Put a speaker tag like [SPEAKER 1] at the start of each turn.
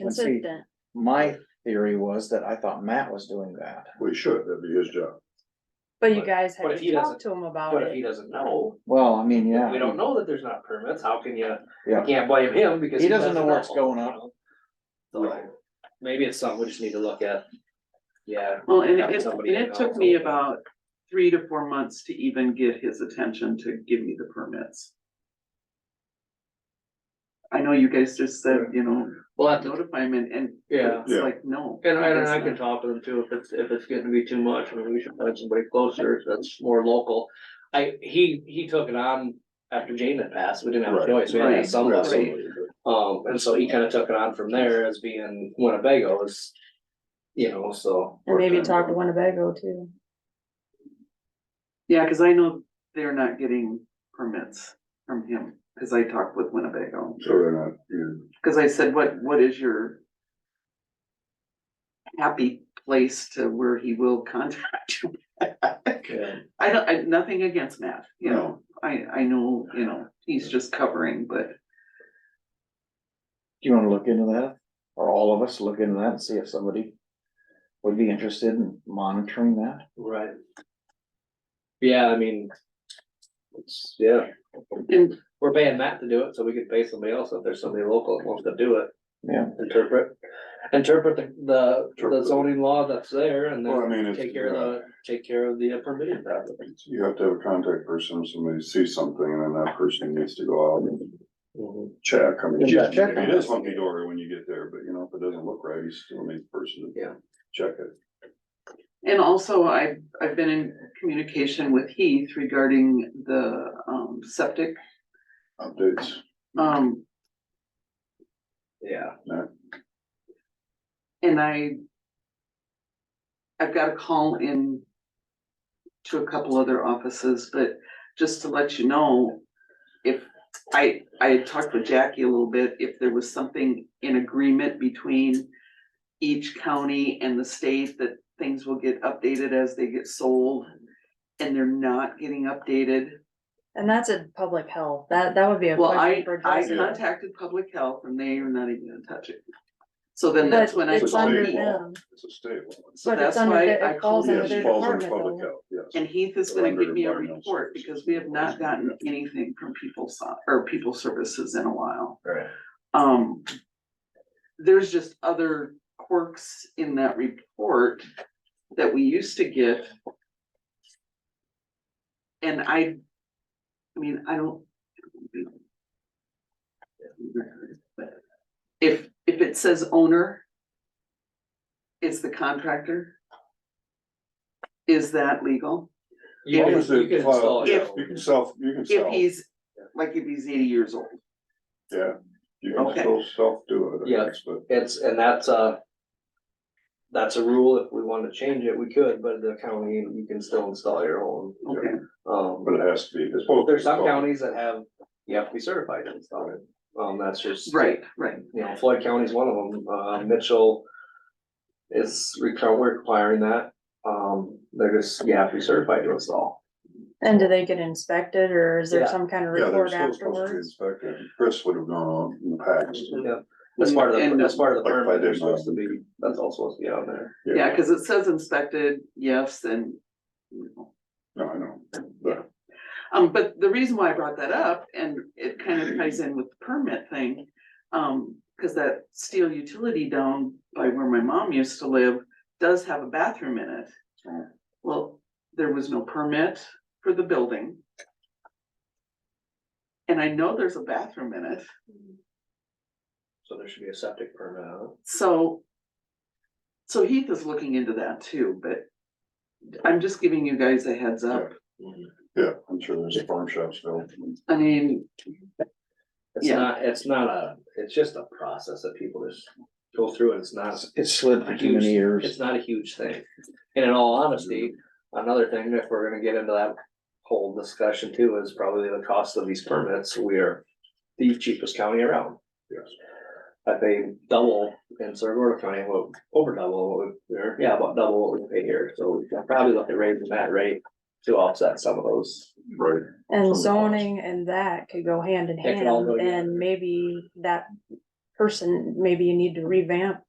[SPEAKER 1] And see,
[SPEAKER 2] consistent.
[SPEAKER 1] My theory was that I thought Matt was doing that.
[SPEAKER 3] We should, that'd be his job.
[SPEAKER 2] But you
[SPEAKER 4] But-
[SPEAKER 2] guys had
[SPEAKER 4] but if
[SPEAKER 2] to
[SPEAKER 4] he
[SPEAKER 2] talk
[SPEAKER 4] doesn't-
[SPEAKER 2] to him about
[SPEAKER 4] But if he
[SPEAKER 2] it.
[SPEAKER 4] doesn't know,
[SPEAKER 1] Well, I mean, yeah.
[SPEAKER 4] we don't know that there's not permits, how can you, you
[SPEAKER 1] Yeah,
[SPEAKER 4] can't blame him because.
[SPEAKER 1] He doesn't know what's going
[SPEAKER 4] on. So, maybe it's something we just need to look at. Yeah,
[SPEAKER 5] Well, and it,
[SPEAKER 4] Have
[SPEAKER 5] it- and
[SPEAKER 4] somebody
[SPEAKER 5] it took
[SPEAKER 4] else.
[SPEAKER 5] me about three to four months to even get his attention to give me the permits. I know you guys just said, you know,
[SPEAKER 4] we'll have to,
[SPEAKER 5] notify him and, and
[SPEAKER 4] yeah,
[SPEAKER 5] it's like, no.
[SPEAKER 4] and I, and
[SPEAKER 5] that's
[SPEAKER 4] I can
[SPEAKER 5] not-
[SPEAKER 4] talk to them too, if it's, if it's getting to be too much, I mean, we should find somebody closer, that's more local. I, he, he took it on after Jane had passed, we didn't have a
[SPEAKER 3] Right.
[SPEAKER 4] choice, we had to have
[SPEAKER 5] Right.
[SPEAKER 4] somebody.
[SPEAKER 3] Absolutely.
[SPEAKER 4] Um, and so he kinda took it on from there as being Winnebago is, you know, so.
[SPEAKER 2] And maybe talk to Winnebago too.
[SPEAKER 5] Yeah, cause I know they're not getting permits from him, cause I talked with Winnebago,
[SPEAKER 3] So they're not, you
[SPEAKER 5] cause I said, what, what is your happy place to where he will contact you?
[SPEAKER 4] Yeah.
[SPEAKER 5] I don't, I, nothing against Matt, you
[SPEAKER 3] No.
[SPEAKER 5] know, I, I know, you know, he's just covering, but
[SPEAKER 1] do you wanna look into that? Or all of us look into that and see if somebody would be interested in monitoring that?
[SPEAKER 4] Right. Yeah, I mean. It's, yeah,
[SPEAKER 5] And
[SPEAKER 4] we're paying Matt to do it, so we could pay somebody else if there's somebody local that wants to do it.
[SPEAKER 1] Yeah.
[SPEAKER 4] Interpret, interpret the, the, the
[SPEAKER 3] Interpret.
[SPEAKER 4] zoning law that's there and
[SPEAKER 3] Well, I mean,
[SPEAKER 4] then
[SPEAKER 3] it's-
[SPEAKER 4] take care of the, take care of the permitting problem.
[SPEAKER 3] know, you have to have a contact person, if somebody sees something, and then that person needs to go out and check. I mean,
[SPEAKER 1] Just
[SPEAKER 3] yeah,
[SPEAKER 1] check
[SPEAKER 3] maybe
[SPEAKER 1] on
[SPEAKER 3] It
[SPEAKER 1] it.
[SPEAKER 3] is hunky dory when you get there, but you know, if it doesn't look right, you still need the person
[SPEAKER 4] Yeah.
[SPEAKER 3] to check it.
[SPEAKER 5] and also I've, I've been in communication with Heath regarding the um septic,
[SPEAKER 3] Updates,
[SPEAKER 5] um,
[SPEAKER 4] Yeah,
[SPEAKER 5] And I. I've got a call in. To a couple other offices, but just to let you know. If I, I had talked with Jackie a little bit, if there was something in agreement between. Each county and the state that things will get updated as they get sold. And they're not getting updated.
[SPEAKER 2] And that's a public health. That, that would be a
[SPEAKER 5] Well,
[SPEAKER 2] question
[SPEAKER 5] I,
[SPEAKER 2] for
[SPEAKER 5] I
[SPEAKER 2] Jason.
[SPEAKER 3] Yeah.
[SPEAKER 5] contacted public health and they are not even gonna touch it. So then that's when
[SPEAKER 2] But
[SPEAKER 5] I.
[SPEAKER 2] it's
[SPEAKER 5] told
[SPEAKER 2] under
[SPEAKER 5] Heath-
[SPEAKER 2] them.
[SPEAKER 3] it's a stable.
[SPEAKER 5] So
[SPEAKER 2] But it's
[SPEAKER 5] that's
[SPEAKER 2] under
[SPEAKER 5] why
[SPEAKER 2] the-
[SPEAKER 5] I
[SPEAKER 2] it falls
[SPEAKER 5] called
[SPEAKER 2] under
[SPEAKER 5] him.
[SPEAKER 3] Yes,
[SPEAKER 2] their
[SPEAKER 3] falls under
[SPEAKER 2] department,
[SPEAKER 3] public
[SPEAKER 2] though.
[SPEAKER 3] health, yes.
[SPEAKER 5] And Heath is gonna
[SPEAKER 3] Under
[SPEAKER 5] give me a
[SPEAKER 3] environmental
[SPEAKER 5] report
[SPEAKER 3] services.
[SPEAKER 5] because we have not gotten anything from people so, or people services in a while.
[SPEAKER 4] right.
[SPEAKER 5] Um. There's just other quirks in that report that we used to get. And I. I mean, I don't. If, if it says owner. It's the contractor. Is that legal?
[SPEAKER 4] You
[SPEAKER 3] Well,
[SPEAKER 4] can,
[SPEAKER 3] it's a
[SPEAKER 4] you can install it.
[SPEAKER 3] file. You can self, you can
[SPEAKER 5] If
[SPEAKER 3] self,
[SPEAKER 5] he's, like, if he's eighty years old,
[SPEAKER 3] yeah, you can
[SPEAKER 5] Okay.
[SPEAKER 3] still self do it, I
[SPEAKER 4] Yeah.
[SPEAKER 3] guess, but.
[SPEAKER 4] It's, and that's uh That's a rule, if we wanna change it, we could, but the county, you can still install your own,
[SPEAKER 5] okay,
[SPEAKER 4] um,
[SPEAKER 3] But
[SPEAKER 4] but
[SPEAKER 3] it has to be, it's supposed. to be
[SPEAKER 4] there's some
[SPEAKER 3] solved.
[SPEAKER 4] counties that have, you have to be certified to install it. Um, that's just, you
[SPEAKER 5] right, right,
[SPEAKER 4] know, Floyd County's one of them, uh, Mitchell is requ- we're requiring that, um, they're just, you have to be certified to install.
[SPEAKER 2] And do they get inspected or is there
[SPEAKER 4] Yeah.
[SPEAKER 2] some kind of
[SPEAKER 3] Yeah, they're
[SPEAKER 2] report
[SPEAKER 3] still supposed to be
[SPEAKER 2] afterwards?
[SPEAKER 3] inspected, Chris would have known on in the past.
[SPEAKER 4] Yeah, that's part of the,
[SPEAKER 5] And-
[SPEAKER 4] that's part of the
[SPEAKER 3] Like if I
[SPEAKER 4] permit, they're
[SPEAKER 3] did
[SPEAKER 4] supposed to be, that's all supposed to be on there.
[SPEAKER 5] yeah, cause it says inspected, yes, and. you know.
[SPEAKER 3] No, I know, but
[SPEAKER 5] Um, but the reason why I brought that up, and it kind of ties in with the permit thing, um, cause that steel utility down by where my mom used to live. Does have a bathroom in it. Well, there was no permit for the building. And I know there's a bathroom in it,
[SPEAKER 4] So there should be a septic permit on it.
[SPEAKER 5] so. So Heath is looking into that too, but I'm just giving you guys a heads up.
[SPEAKER 4] Mm-hmm.
[SPEAKER 3] yeah, I'm sure there's a farm shop still.
[SPEAKER 5] I mean,
[SPEAKER 4] It's
[SPEAKER 5] Yeah.
[SPEAKER 4] not, it's not a, it's just a process that people just go through and it's not,
[SPEAKER 1] It's slid for too many
[SPEAKER 4] it's
[SPEAKER 1] years.
[SPEAKER 4] not a huge thing. And in all honesty, another thing, if we're gonna get into that whole discussion too, is probably the cost of these permits. We are the cheapest county around.
[SPEAKER 3] Yes.
[SPEAKER 4] I pay double in Saragordo County, well, over double, what we- or, yeah, about double what we pay here. So we can probably look at raising that rate to offset some of those.
[SPEAKER 3] Right,
[SPEAKER 1] the
[SPEAKER 2] And
[SPEAKER 1] cost.
[SPEAKER 2] zoning and that could go hand in
[SPEAKER 4] That could all
[SPEAKER 2] hand
[SPEAKER 4] go together.
[SPEAKER 2] and maybe that person, maybe you need to revamp